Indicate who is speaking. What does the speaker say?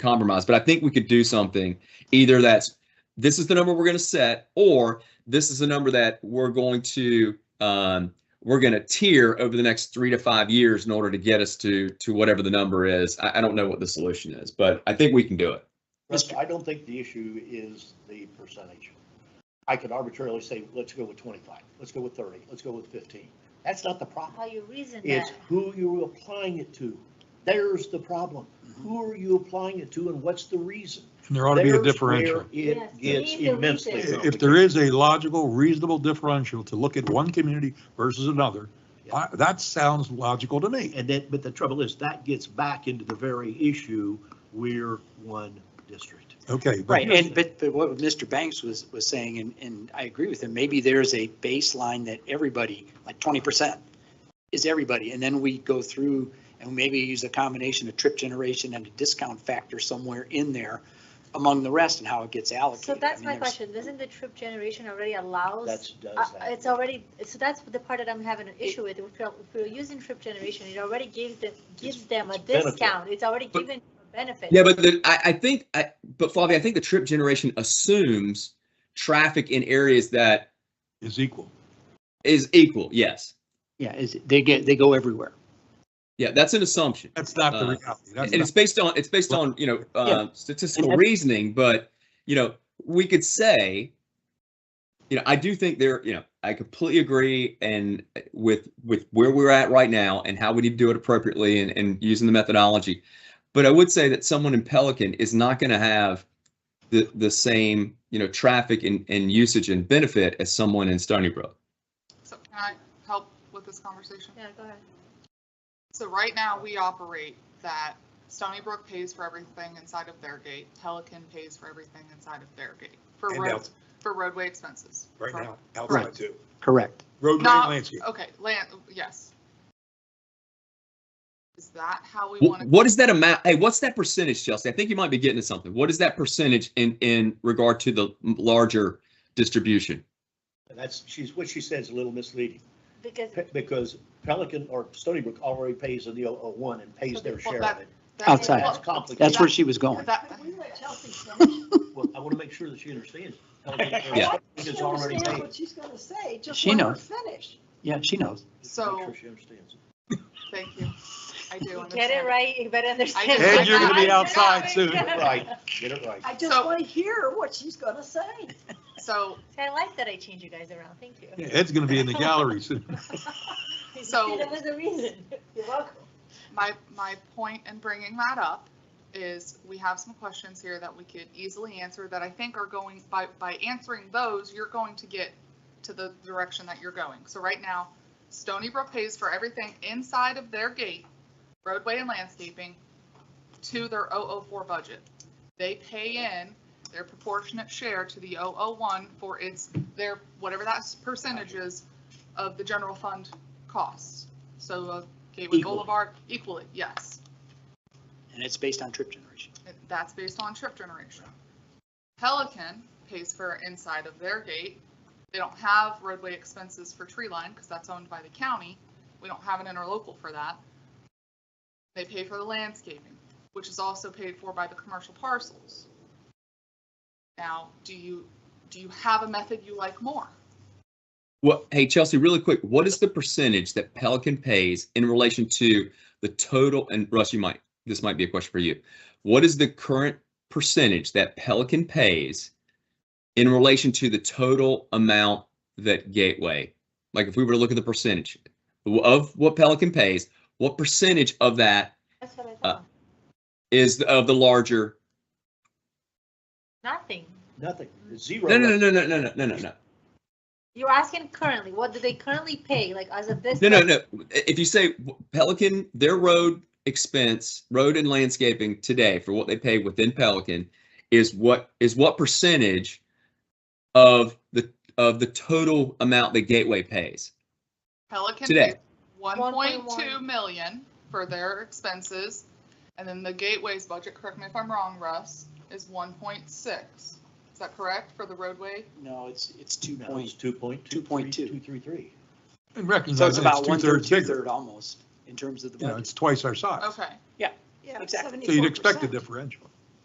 Speaker 1: compromise. But I think we could do something either that's this is the number we're going to set, or this is the number that we're going to um, we're going to tier over the next three to five years in order to get us to to whatever the number is. I, I don't know what the solution is, but I think we can do it.
Speaker 2: Russ, I don't think the issue is the percentage. I could arbitrarily say, let's go with twenty-five, let's go with thirty, let's go with fifteen. That's not the
Speaker 3: How
Speaker 2: problem.
Speaker 3: you reason
Speaker 2: It's
Speaker 3: that?
Speaker 2: who you're applying it to. There's the problem. Who are you applying it to and what's the reason?
Speaker 4: And there ought to be a
Speaker 2: There's
Speaker 4: differential.
Speaker 2: where It
Speaker 3: Yes,
Speaker 2: gets
Speaker 3: we need the
Speaker 2: immensely
Speaker 3: reason.
Speaker 4: If there is a logical, reasonable differential to look at one community versus another, I- that sounds logical to me.
Speaker 2: And then, but the trouble is, that gets back into the very issue, we're one district.
Speaker 4: Okay. but
Speaker 5: Right, and but but what Mr. Banks was was saying, and and I agree with him, maybe there's a baseline that everybody, like twenty percent is everybody, and then we go through and maybe use a combination of trip generation and a discount factor somewhere in there among the rest and how it gets allocated.
Speaker 3: So that's
Speaker 5: I mean,
Speaker 3: my
Speaker 5: there's-
Speaker 3: question, doesn't the trip generation already allows?
Speaker 2: That's,
Speaker 3: uh,
Speaker 2: does
Speaker 3: It's
Speaker 2: that.
Speaker 3: already, so that's the part that I'm having an issue with, if we're, if we're using trip generation, it already gives them, gives them a
Speaker 2: it's benefit.
Speaker 3: discount, it's already
Speaker 1: But-
Speaker 3: given a benefit.
Speaker 1: Yeah, but the, I, I think, I, but Flavia, I think the trip generation assumes traffic in areas that
Speaker 4: Is equal.
Speaker 1: is equal. Yes.
Speaker 5: Yeah, is they get, they go everywhere.
Speaker 1: Yeah, that's an assumption.
Speaker 4: That's not the
Speaker 1: Uh,
Speaker 4: reality. That's
Speaker 1: and it's
Speaker 4: not-
Speaker 1: based on it's based on you know uh, statistical reasoning but you know we could say you know i do think there you know i completely agree and uh, with with where we're at right now and how we need to do it appropriately and, and using the methodology but i would say that someone in pelican is not going to have the the same you know traffic and, and usage and benefit as someone in stony brook
Speaker 6: So can I help with this conversation?
Speaker 3: Yeah, go ahead.
Speaker 6: So right now, we operate that Stony Brook pays for everything inside of their gate, Pelican pays for everything inside of their gate, for
Speaker 4: And
Speaker 6: road,
Speaker 4: out-
Speaker 6: for roadway expenses.
Speaker 4: Right
Speaker 6: For-
Speaker 4: now, outside
Speaker 5: Right.
Speaker 4: too.
Speaker 5: Correct.
Speaker 4: Roadway
Speaker 6: Not-
Speaker 4: landscape.
Speaker 6: Okay, land, yes. Is that how we
Speaker 1: Wh-
Speaker 6: want to?
Speaker 1: What is that amount? Hey, what's that percentage, Chelsea? I think you might be getting to something. What is that percentage in, in regard to the m- larger distribution?
Speaker 2: That's, she's, what she says is a little misleading,
Speaker 3: Because,
Speaker 2: pe- because Pelican or Stony Brook already pays in the O one and pays their
Speaker 6: Well,
Speaker 2: share of
Speaker 6: that-
Speaker 2: it.
Speaker 5: Outside.
Speaker 2: That's complicated.
Speaker 5: That's where she was going.
Speaker 6: That,
Speaker 2: Well, I want to make sure that she understands. Pelican or
Speaker 1: Yeah.
Speaker 2: Stony Brook is already
Speaker 7: understands
Speaker 2: paid.
Speaker 7: what she's gonna say, just
Speaker 5: She
Speaker 7: let her
Speaker 5: knows.
Speaker 7: finish.
Speaker 5: Yeah, she knows.
Speaker 2: Just make
Speaker 6: So-
Speaker 2: sure she understands.
Speaker 6: thank you. I do understand.
Speaker 3: get it right, you better understand.
Speaker 6: Ed, you're gonna be
Speaker 4: outside soon.
Speaker 2: Right, get it right.
Speaker 7: I just
Speaker 6: So-
Speaker 7: wanna hear what she's gonna say.
Speaker 6: So
Speaker 3: I like that I change you guys around, thank you.
Speaker 4: Ed's going to be in the gallery soon.
Speaker 3: You see,
Speaker 6: So-
Speaker 3: There was a reason.
Speaker 7: You're welcome.
Speaker 6: My, my point in bringing that up is we have some questions here that we could easily answer that I think are going, by, by answering those, you're going to get to the direction that you're going. So right now, Stony Brook pays for everything inside of their gate, roadway and landscaping, to their 004 budget. They pay in their proportionate share to the 001 for its, their, whatever that percentage is of the general fund costs. So uh, Gateway
Speaker 5: Equally.
Speaker 6: Boulevard, equally, yes.
Speaker 5: And it's based on trip generation.
Speaker 6: That's based on trip generation. Pelican pays for inside of their gate. They don't have roadway expenses for tree line because that's owned by the county. We don't have an interlocal for that. They pay for the landscaping, which is also paid for by the commercial parcels. Now, do you, do you have a method you like more?
Speaker 1: What, hey, Chelsea, really quick, what is the percentage that Pelican pays in relation to the total? And Russ, you might, this might be a question for you. What is the current percentage that Pelican pays in relation to the total amount that Gateway? Like if we were to look at the percentage of what Pelican pays, what percentage of that
Speaker 3: That's what I
Speaker 1: Uh,
Speaker 3: thought.
Speaker 1: is the- of the larger
Speaker 3: Nothing.
Speaker 2: Nothing, zero.
Speaker 1: No, no, no, no, no, no, no, no, no,
Speaker 3: You're asking currently, what do they currently pay, like as of this?
Speaker 1: no, no,
Speaker 3: month?
Speaker 1: no. If you say Pelican, their road expense, road and landscaping today for what they pay within Pelican is what, is what percentage of the, of the total amount that Gateway pays?
Speaker 6: Pelican
Speaker 1: Today.
Speaker 6: pays 1.2
Speaker 3: 1.1.
Speaker 6: million for their expenses. And then the Gateway's budget, correct me if I'm wrong, Russ, is 1.6. Is that correct for the roadway?
Speaker 5: No, it's, it's two
Speaker 2: No,
Speaker 5: point,
Speaker 2: it's two point two.
Speaker 5: 2.2.
Speaker 2: Two, three, three.
Speaker 4: And
Speaker 5: so it's
Speaker 4: recognize that
Speaker 5: about
Speaker 4: it's
Speaker 5: one third,
Speaker 4: two-thirds
Speaker 5: two
Speaker 4: bigger.
Speaker 5: third almost in terms of the
Speaker 4: You know,
Speaker 5: budget.
Speaker 4: it's twice our size.
Speaker 6: Okay.
Speaker 7: Yeah,
Speaker 5: Exactly.
Speaker 4: So you'd expect a
Speaker 7: 74%.
Speaker 4: differential.